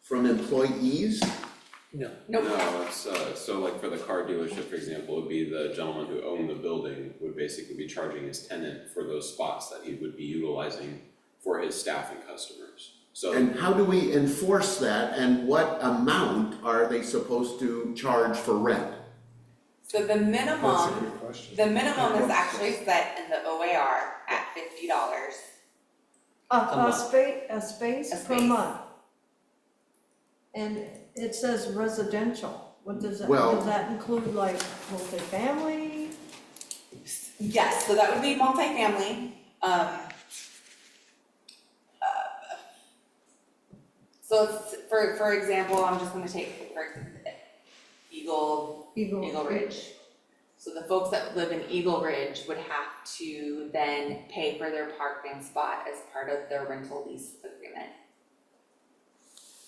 from employees? No, Nope, No, it's uh, so like for the car dealership, for example, would be the gentleman who owned the building would basically be charging his tenant for those spots that he would be utilizing for his staff and customers. So And how do we enforce that and what amount are they supposed to charge for rent? so the That's a minimum, good question. the minimum is actually set in the OAR at fifty dollars. A, A a month. space, a space A per space. month. And it says residential, what does that, Well- does that include like multifamily? Yes, so that would be multifamily, um. uh, So it's- for, for example, I'm just gonna take, for ex- Eagle Eagle. Eagle Ridge. So the folks that live in Eagle Ridge would have to then pay for their parking spot as part of their rental lease agreement.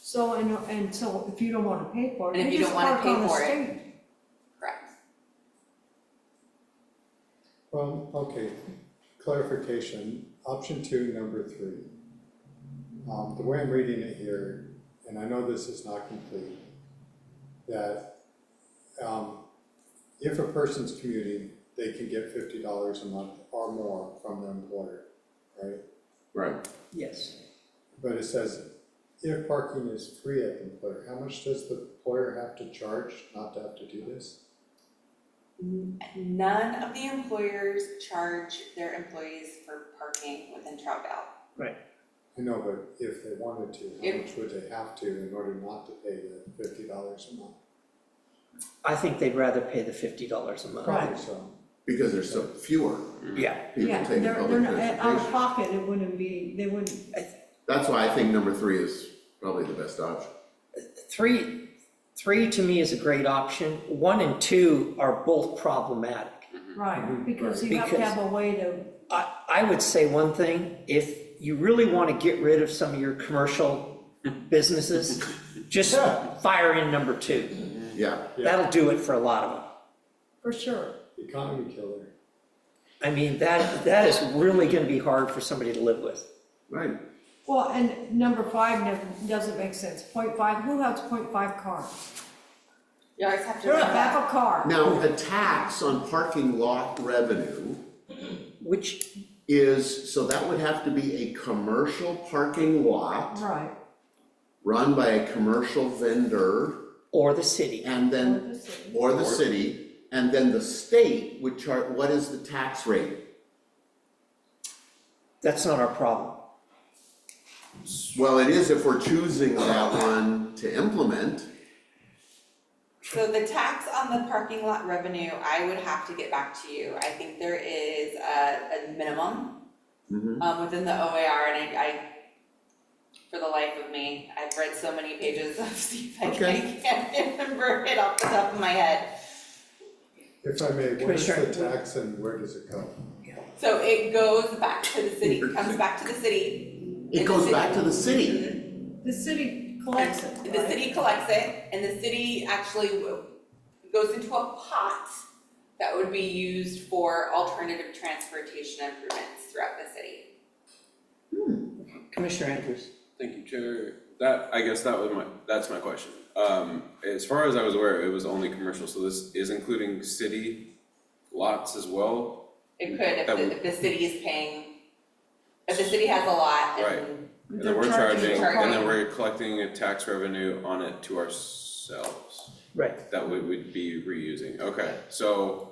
So, and, and so if you don't wanna pay for it, And if you you just don't wanna park pay on the for it. street. Correct. Um, okay, clarification, option two, number three. Um, the way I'm reading it here, and I know this is not complete, that, um, if a person's commuting, they can get fifty dollars a month or more from the employer, right? Right. yes, But it says, if parking is free at the employer, how much does the employer have to charge not to have to do this? N- None of the employers charge their employees for parking within Troutdale. I know, but if they wanted to, how If- much would they have to in order not to pay the fifty dollars a month? I think they'd rather pay the fifty dollars a month. Probably so. Because there's so fewer Yeah, people Yeah, taking they're, public transportation. they're not, eh, uh, um, out of pocket, it wouldn't be, they wouldn't, That's why I think number three is probably the best option. three, three to me is a great option, one and two are both problematic. Mm-hmm. right, because you have to Because- have a way to, I, I would say one thing, if you really wanna get rid of some of your commercial businesses, just fire in number two, Yeah, Yeah. that'll do it for a lot of them. for sure. Economy killer. I mean, that, that is really gonna be hard for somebody to live with. right. Well, and number five never, doesn't make sense, point five, who has point five cars? You always have to You're a remember, back a car. Now, a tax on parking lot revenue Which, is, so that would have to be a commercial parking lot Right, run by a commercial vendor or the city, and Or the then, city. or the city, and then the state would chart, what is the tax rate? that's not our problem. Well, it is if we're choosing that one to implement, so the tax on the parking lot revenue, I would have to get back to you. I think there is a, a minimum Mhm. um, within the OAR and I, I, for the life of me, I've read so many pages of Steve, I Okay. can't, can't remember it off the top of my head. If I may, what is Commissioner, the tax and where does it go? So it goes back to the city, comes back to the city. it goes back to the city. The city collects it, The right? city collects it and the city actually w- goes into a pot that would be used for alternative transportation improvements throughout the city. Commissioner Andrews? Thank you, Chair. That, I guess that was my, that's my question. Um, as far as I was aware, it was only commercial, so this is including city lots as well? It could, if That would- the, if the city is paying, if the city has a lot and And They're then we're charging- charging, and then Charging. we're collecting a tax revenue on it to ourselves. Right. That we would be reusing, okay, so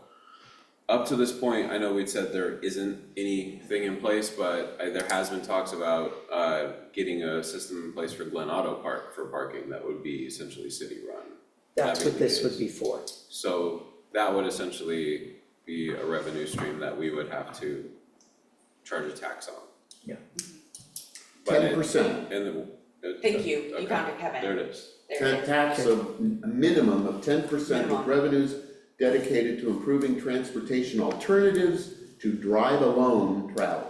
up to this point, I know we'd said there isn't anything in place, but I, there has been talks about uh getting a system in place for Glen Auto Park for parking that would be essentially city run. That's what That'd be this would good. be for. So that would essentially be a revenue stream that we would have to charge a tax on. Yeah. But it- 10%. And the. it- thank you, you okay, found it, Kevin. There it is. There it Ta- is. Tax of a minimum of ten percent of Minimum. revenues dedicated to improving transportation alternatives to drive alone travel.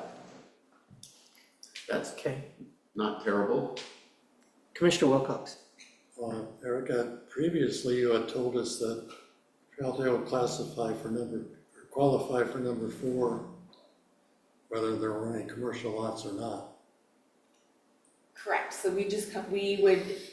That's Okay. not terrible. Commissioner Wilcox? Uh, Erica, previously you had told us that Troutdale would classify for number, or qualify for number four, whether there were any commercial lots or not. Correct, so we just, co- we would